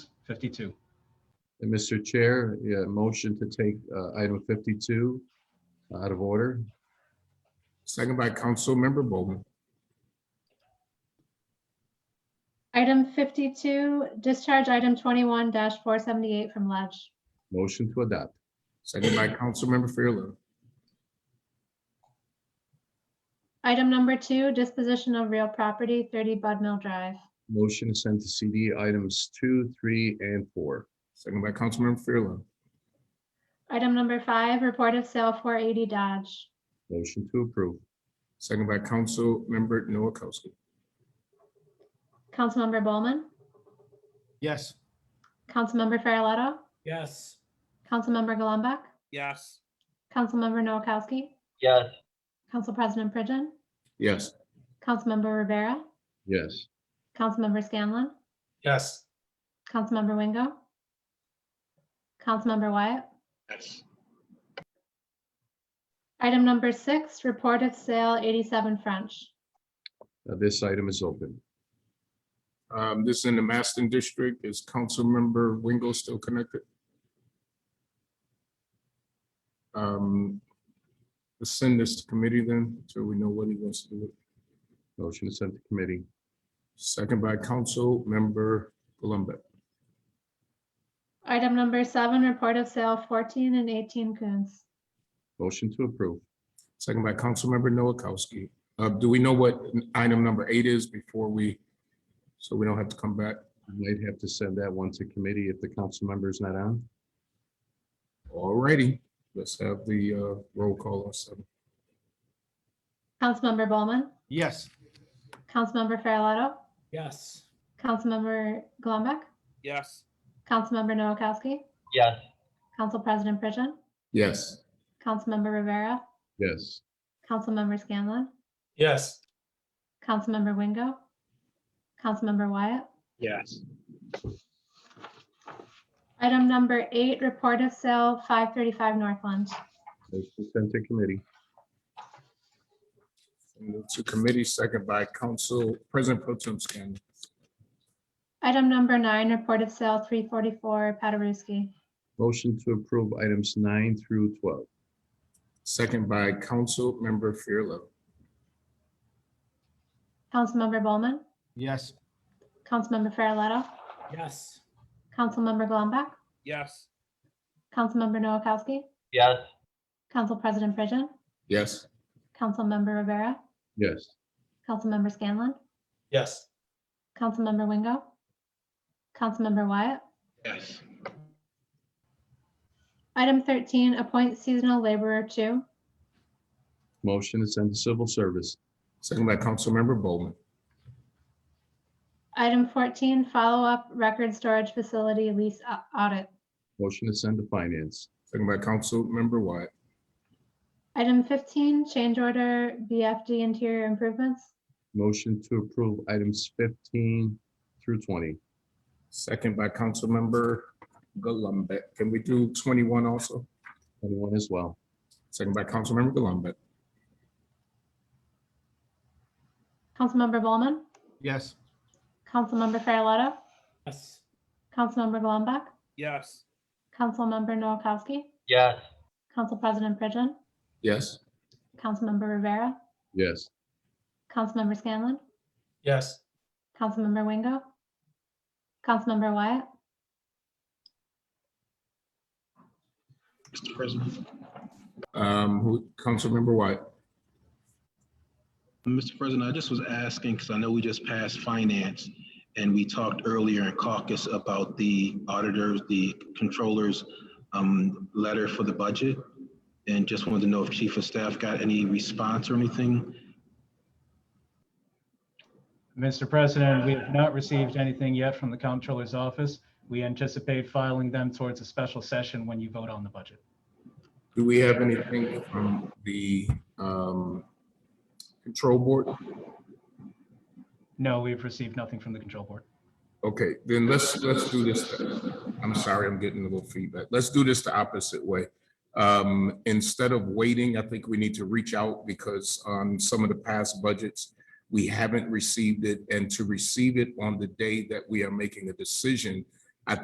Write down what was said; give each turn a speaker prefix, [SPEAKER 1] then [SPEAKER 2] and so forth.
[SPEAKER 1] 52.
[SPEAKER 2] And Mr. Chair, yeah, motion to take uh, item 52 out of order.
[SPEAKER 3] Second by Councilmember Bowman.
[SPEAKER 4] Item 52, discharge item 21-478 from Ledge.
[SPEAKER 2] Motion to adopt.
[SPEAKER 3] Second by Councilmember Farrelletto.
[SPEAKER 4] Item number two, disposition of real property, 30 Bud Mill Drive.
[SPEAKER 2] Motion to send to CD items two, three, and four.
[SPEAKER 3] Second by Councilmember Farrelletto.
[SPEAKER 4] Item number five, report of sale 480 Dodge.
[SPEAKER 2] Motion to approve.
[SPEAKER 3] Second by Councilmember Noakowski.
[SPEAKER 4] Councilmember Bowman,
[SPEAKER 5] Yes.
[SPEAKER 4] Councilmember Farrelletto,
[SPEAKER 5] Yes.
[SPEAKER 4] Councilmember Golumback,
[SPEAKER 5] Yes.
[SPEAKER 4] Councilmember Noakowski,
[SPEAKER 6] yes,
[SPEAKER 4] Council President Pridgen,
[SPEAKER 3] Yes.
[SPEAKER 4] Councilmember Rivera,
[SPEAKER 2] Yes.
[SPEAKER 4] Councilmember Scanlon,
[SPEAKER 5] Yes.
[SPEAKER 4] Councilmember Wingo, Councilmember Wyatt.
[SPEAKER 1] Yes.
[SPEAKER 4] Item number six, report of sale 87 French.
[SPEAKER 2] Uh, This item is open.
[SPEAKER 3] Um, This is in the Maston District. Is Councilmember Wingo still connected? Um, Let's send this to committee then, so we know what he wants to do.
[SPEAKER 2] Motion to send to committee.
[SPEAKER 3] Second by Councilmember Golumback.
[SPEAKER 4] Item number seven, report of sale 14 and 18 Coons.
[SPEAKER 2] Motion to approve.
[SPEAKER 3] Second by Councilmember Noakowski. Uh, Do we know what item number eight is before we, so we don't have to come back?
[SPEAKER 2] I Might have to send that one to committee if the council member is not on.
[SPEAKER 3] All righty, let's have the uh, roll call on seven.
[SPEAKER 4] Councilmember Bowman,
[SPEAKER 5] Yes.
[SPEAKER 4] Councilmember Farrelotto,
[SPEAKER 5] Yes.
[SPEAKER 4] Councilmember Golumback,
[SPEAKER 5] Yes.
[SPEAKER 4] Councilmember Noakowski,
[SPEAKER 6] yes,
[SPEAKER 4] Council President Pridgen,
[SPEAKER 3] Yes,
[SPEAKER 4] Councilmember Rivera,
[SPEAKER 2] Yes.
[SPEAKER 4] Councilmember Scanlon,
[SPEAKER 5] Yes.
[SPEAKER 4] Councilmember Wingo, Councilmember Wyatt.
[SPEAKER 1] Yes.
[SPEAKER 4] Item number eight, report of sale 535 Northland.
[SPEAKER 2] Motion to send to committee.
[SPEAKER 3] move to committee, second by Council President Pro Tem Scanlon.
[SPEAKER 4] Item number nine, report of sale 344 Paderewski.
[SPEAKER 2] Motion to approve items nine through 12.
[SPEAKER 3] Second by Councilmember Farrelletto.
[SPEAKER 4] Councilmember Bowman,
[SPEAKER 5] Yes.
[SPEAKER 4] Councilmember Farrelotto,
[SPEAKER 5] Yes.
[SPEAKER 4] Councilmember Golumback,
[SPEAKER 5] Yes.
[SPEAKER 4] Councilmember Noakowski,
[SPEAKER 6] yes,
[SPEAKER 4] Council President Pridgen,
[SPEAKER 3] Yes,
[SPEAKER 4] Councilmember Rivera,
[SPEAKER 2] Yes.
[SPEAKER 4] Councilmember Scanlon,
[SPEAKER 5] Yes.
[SPEAKER 4] Councilmember Wingo, Councilmember Wyatt.
[SPEAKER 1] Yes.
[SPEAKER 4] Item 13, appoint seasonal laborer two.
[SPEAKER 2] Motion to send to civil service.
[SPEAKER 3] second by Councilmember Bowman.
[SPEAKER 4] Item 14, follow-up record storage facility lease au- audit.
[SPEAKER 2] Motion to send to finance.
[SPEAKER 3] Second by Councilmember Wyatt.
[SPEAKER 4] Item 15, change order BFD interior improvements.
[SPEAKER 2] Motion to approve items 15 through 20.
[SPEAKER 3] Second by Councilmember Gullumbeck. Can we do twenty-one also?
[SPEAKER 2] Anyone as well.
[SPEAKER 3] Second by Councilmember Gullumbeck.
[SPEAKER 4] Councilmember Bowman,
[SPEAKER 5] Yes.
[SPEAKER 4] Councilmember Farrelotto,
[SPEAKER 5] Yes.
[SPEAKER 4] Councilmember Golumback,
[SPEAKER 5] Yes.
[SPEAKER 4] Councilmember Noakowski,
[SPEAKER 6] yes,
[SPEAKER 4] Council President Pridgen,
[SPEAKER 3] Yes,
[SPEAKER 4] Councilmember Rivera,
[SPEAKER 2] Yes.
[SPEAKER 4] Councilmember Scanlon,
[SPEAKER 5] Yes.
[SPEAKER 4] Councilmember Wingo, Councilmember Wyatt,
[SPEAKER 1] Mr. President.
[SPEAKER 3] um, who, Councilmember Wyatt.
[SPEAKER 1] Mr. President, I just was asking, because I know we just passed finance, and we talked earlier in caucus about the auditors, the controllers, um, letter for the budget, and just wanted to know if chief of staff got any response or anything.
[SPEAKER 7] Mr. President, we have not received anything yet from the Comptroller's Office. We anticipate filing them towards a special session when you vote on the budget.
[SPEAKER 3] Do we have anything from the, um, Control Board?
[SPEAKER 7] No, we've received nothing from the Control Board.
[SPEAKER 3] Okay, then let's, let's do this. I'm sorry, I'm getting a little feedback. Let's do this the opposite way. Um, instead of waiting, I think we need to reach out because on some of the past budgets, we haven't received it and to receive it on the day that we are making a decision